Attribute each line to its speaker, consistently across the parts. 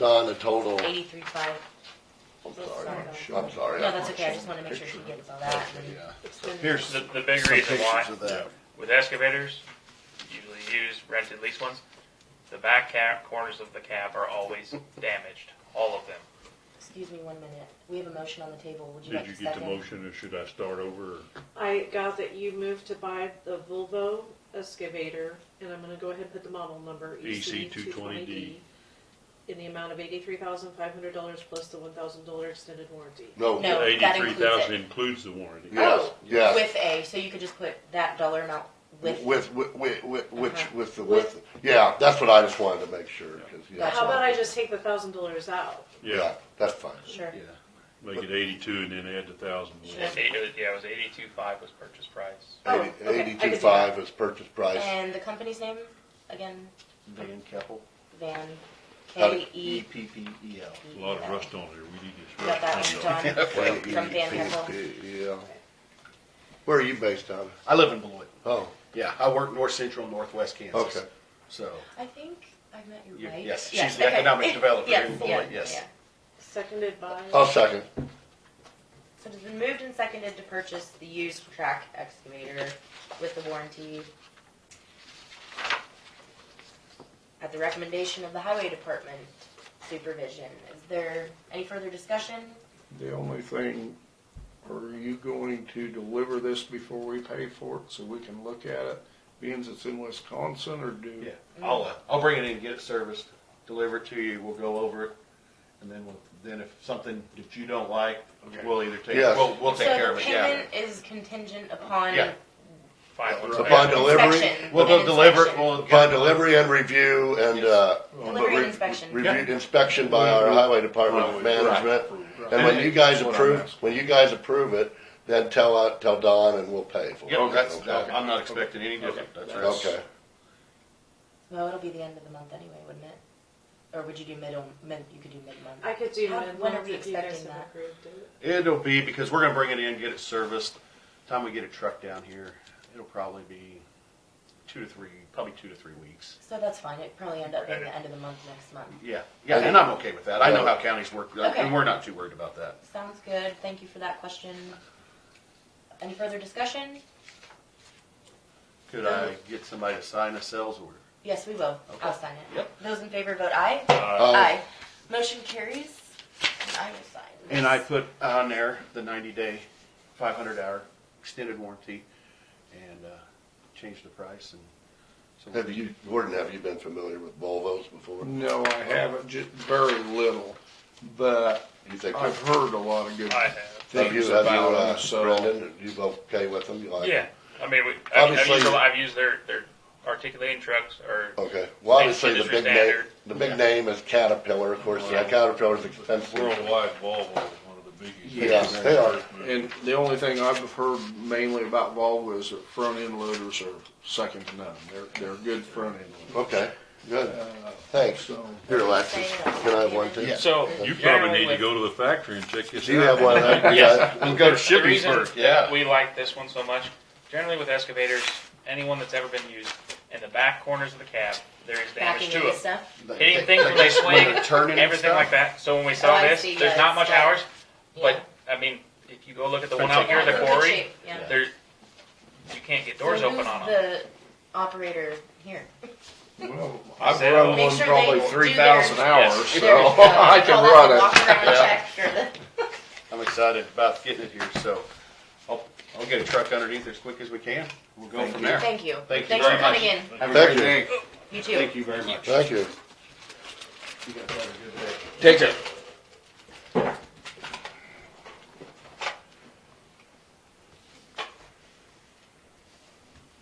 Speaker 1: Don, the total,
Speaker 2: Eighty-three five.
Speaker 1: I'm
Speaker 2: Sorry.
Speaker 1: sorry, I'm sorry.
Speaker 2: No, that's okay, I just wanna make sure she gets all that. and-
Speaker 1: Yeah.
Speaker 3: Here's
Speaker 1: some
Speaker 3: The, the big reason why,
Speaker 1: pictures of that.
Speaker 3: with excavators, usually use rented lease ones, the back cab, corners of the cab are always damaged, all of them.
Speaker 2: Excuse me one minute, we have a motion on the table, would you
Speaker 4: Did
Speaker 2: like
Speaker 4: you
Speaker 2: to
Speaker 4: get the
Speaker 2: second?
Speaker 4: motion or should I start over?
Speaker 5: I got that you moved to buy the Volvo excavator, and I'm gonna go ahead and put the model number EC E two twenty D in the amount of eighty-three thousand five hundred dollars plus the one thousand dollar extended warranty.
Speaker 1: No,
Speaker 2: No. that
Speaker 4: Eighty-three thousand
Speaker 2: includes
Speaker 4: includes the warranty.
Speaker 1: Yeah. Yes,
Speaker 2: Oh,
Speaker 1: yes.
Speaker 2: With A, so you could just put that dollar amount with.
Speaker 1: with, with, with, with- which,
Speaker 2: Uh-huh.
Speaker 1: with the, with, yeah, that's what I just wanted to make sure, 'cause, yeah.
Speaker 2: Gotcha.
Speaker 5: How about I just take the thousand dollars out?
Speaker 4: Yeah,
Speaker 1: That's fine.
Speaker 2: Sure.
Speaker 1: Yeah.
Speaker 4: make it eighty-two and then add the thousand.
Speaker 3: It's eight- it was- yeah, it was eighty-two five was purchase price.
Speaker 5: Oh,
Speaker 1: Eighty-
Speaker 5: okay, I can do
Speaker 1: Eighty-two five is purchase price.
Speaker 2: And the company's name, again,
Speaker 6: Van Keppel.
Speaker 2: Van,
Speaker 1: Got
Speaker 2: K
Speaker 1: it.
Speaker 2: E.
Speaker 6: P P E L.
Speaker 4: A lot of rust on there, we need
Speaker 2: You
Speaker 4: this
Speaker 2: Got that
Speaker 4: rust.
Speaker 2: one,
Speaker 4: cleaned up.
Speaker 2: John, from Van
Speaker 1: Eighty-
Speaker 2: Heffel.
Speaker 1: Yeah. Where are you based out of?
Speaker 6: I live in Beloit.
Speaker 1: Oh,
Speaker 6: Yeah, I work north central, northwest Kansas.
Speaker 1: Okay.
Speaker 6: So,
Speaker 2: I think I met you,
Speaker 6: You-
Speaker 2: right?
Speaker 6: yes, she's
Speaker 2: Yes,
Speaker 6: the
Speaker 2: okay.
Speaker 6: economic developer
Speaker 2: Yes,
Speaker 6: in
Speaker 2: yeah,
Speaker 6: Beloit, yes.
Speaker 2: yeah.
Speaker 5: Seconded by,
Speaker 1: I'll second.
Speaker 2: So it's been moved and seconded to purchase the used track excavator with the warranty. At the recommendation of the highway department supervision. Is there any further discussion?
Speaker 7: The only thing, are you going to deliver this before we pay for it so we can look at it? Being it's in Wisconsin or do?
Speaker 6: yeah,
Speaker 2: Mm-hmm.
Speaker 6: I'll, uh, I'll bring it in, get it serviced, deliver it to you, we'll go over it. And then, we'll then if something that you don't like, we'll either take,
Speaker 1: Yes.
Speaker 6: we'll, we'll take care of it,
Speaker 2: So the
Speaker 6: yeah.
Speaker 2: payment is contingent upon
Speaker 6: Yeah.
Speaker 3: Final
Speaker 1: Upon
Speaker 3: inspection.
Speaker 1: delivery,
Speaker 2: inspection.
Speaker 6: We'll
Speaker 2: an
Speaker 6: go deliver it,
Speaker 2: inspection.
Speaker 6: we'll.
Speaker 1: upon delivery and review and,
Speaker 6: Yes.
Speaker 1: uh.
Speaker 2: Delivery and
Speaker 1: re-
Speaker 2: inspection.
Speaker 1: Reviewed inspection by our highway department of
Speaker 6: Right.
Speaker 1: management.
Speaker 6: Right.
Speaker 1: And when you guys
Speaker 7: That's what I'm
Speaker 1: approve,
Speaker 7: asking.
Speaker 1: when you guys approve it, then tell, uh, tell Don and we'll pay for it.
Speaker 6: Yep, that's,
Speaker 1: Okay.
Speaker 6: that- I'm not expecting any different. That's- that's-
Speaker 1: Okay,
Speaker 2: Well, it'll be the end of the month anyway, wouldn't it? Or would you do middle, mid, you could do mid-month?
Speaker 5: I could do
Speaker 2: How-
Speaker 5: mid
Speaker 2: when are we
Speaker 5: if you guys
Speaker 2: expecting
Speaker 5: have
Speaker 2: that?
Speaker 5: approved it.
Speaker 6: It'll be, because we're gonna bring it in, get it serviced, time we get a truck down here, it'll probably be two to three, probably two to three weeks.
Speaker 2: So that's fine, it'd probably end up being the end of the month next month.
Speaker 6: Yeah, yeah, and I'm okay with that. I know how counties work,
Speaker 2: Okay.
Speaker 6: and we're not too worried about that.
Speaker 2: Sounds good, thank you for that question. Any further discussion?
Speaker 6: Could I get somebody to sign a sales order?
Speaker 2: Yes, we will. I'll
Speaker 6: Okay.
Speaker 2: sign it.
Speaker 6: Yep.
Speaker 2: Those in favor vote aye.
Speaker 1: Aye.
Speaker 2: Motion carries. And I will sign. this.
Speaker 6: And I put on there the ninety day, five hundred hour extended warranty, and, uh, changed the price and. so
Speaker 1: Uh, have you, Gordon, have you been familiar with Volvos before?
Speaker 7: No, I haven't, just very little, but
Speaker 1: You think,
Speaker 7: I've
Speaker 1: have
Speaker 7: heard a lot of good
Speaker 3: I have,
Speaker 1: you,
Speaker 7: things
Speaker 1: have you,
Speaker 7: about
Speaker 1: uh,
Speaker 7: them, so.
Speaker 1: Brendan, you okay with them? You like them?
Speaker 3: yeah, I mean, we, I- I've
Speaker 1: Obviously-
Speaker 3: used, a lot- I've used their, their articulating trucks or
Speaker 1: Okay, well, obviously, the
Speaker 3: Industry
Speaker 1: big name,
Speaker 3: standard.
Speaker 1: the big name is Caterpillar, of course, yeah, Caterpillar's expensive.
Speaker 4: Worldwide Volvo, one of the biggest.
Speaker 1: Yeah, they are,
Speaker 7: And the only thing I've heard mainly about Volvo is that front end loaders are second to none. They're, they're good front end loaders.
Speaker 1: okay, good, thanks.
Speaker 7: So,
Speaker 1: Here, Alexis, can I have one too?
Speaker 6: So.
Speaker 3: Generally
Speaker 4: You probably need to
Speaker 3: with-
Speaker 4: go to the factory and check this out.
Speaker 1: Do you have one of that?
Speaker 6: Yes, we'll go to
Speaker 3: The reason
Speaker 6: Shippensburg,
Speaker 3: that
Speaker 6: yeah.
Speaker 3: we like this one so much, generally with excavators, anyone that's ever been used, in the back corners of the cab, there is damage
Speaker 2: Backing
Speaker 3: to
Speaker 2: into
Speaker 3: it.
Speaker 2: stuff.
Speaker 3: Hitting things when they swing,
Speaker 6: they're turning and
Speaker 3: everything
Speaker 6: stuff?
Speaker 3: like that, so when we saw
Speaker 2: Oh, I
Speaker 3: this,
Speaker 2: see,
Speaker 3: there's
Speaker 2: yeah,
Speaker 3: not
Speaker 2: it's
Speaker 3: much
Speaker 2: like-
Speaker 3: hours,
Speaker 2: Yeah.
Speaker 3: but, I mean, if you go look at the one
Speaker 6: Fence
Speaker 3: out here,
Speaker 2: Yeah,
Speaker 3: the
Speaker 2: it's in good
Speaker 3: quarry,
Speaker 2: shape, yeah.
Speaker 3: there, you can't get doors
Speaker 2: So
Speaker 3: open
Speaker 2: who's
Speaker 3: on them.
Speaker 2: The operator here.
Speaker 7: well, I've
Speaker 3: Sale.
Speaker 7: run
Speaker 2: Make
Speaker 7: one
Speaker 2: sure
Speaker 7: probably
Speaker 2: they do
Speaker 7: three thousand
Speaker 2: their-
Speaker 7: hours,
Speaker 6: Yes.
Speaker 2: Their,
Speaker 7: so
Speaker 2: uh,
Speaker 7: I can
Speaker 2: well, that's
Speaker 7: run
Speaker 2: a
Speaker 7: it.
Speaker 2: Walk around and
Speaker 6: Yeah.
Speaker 2: check for the.
Speaker 6: I'm excited about getting it here, so I'll, I'll get a truck underneath as quick as we can. We'll go from there.
Speaker 2: Thank you.
Speaker 6: Thank you
Speaker 2: Thanks
Speaker 6: very
Speaker 2: for
Speaker 6: much.
Speaker 2: coming in.
Speaker 6: Have a
Speaker 1: Thank
Speaker 6: great day.
Speaker 2: You too.
Speaker 6: Thank you very much.
Speaker 1: Thank you.
Speaker 6: You guys have a good day.
Speaker 7: Take care.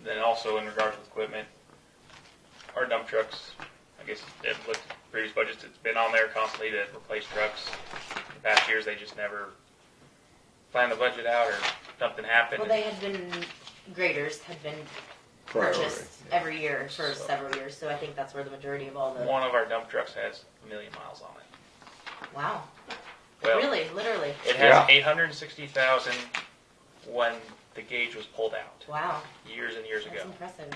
Speaker 3: Then also in regards to equipment, our dump trucks, I guess, it looked at previous budgets, it's been on there constantly to replace trucks. In past years, they just never planned the budget out or something happened.
Speaker 2: Well, they had been, graders had been purchased every year for
Speaker 3: So-
Speaker 2: several years, so I think that's where the majority of all the,
Speaker 3: One of our dump trucks has a million miles on it.
Speaker 2: wow.
Speaker 3: Well-
Speaker 2: Really, literally,
Speaker 3: It has
Speaker 7: Yeah.
Speaker 3: eight hundred and sixty thousand when the gauge was pulled out,
Speaker 2: wow,
Speaker 3: years and years
Speaker 2: that's
Speaker 3: ago.
Speaker 2: impressive.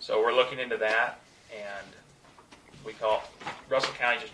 Speaker 3: So we're looking into that and we call, Russell County just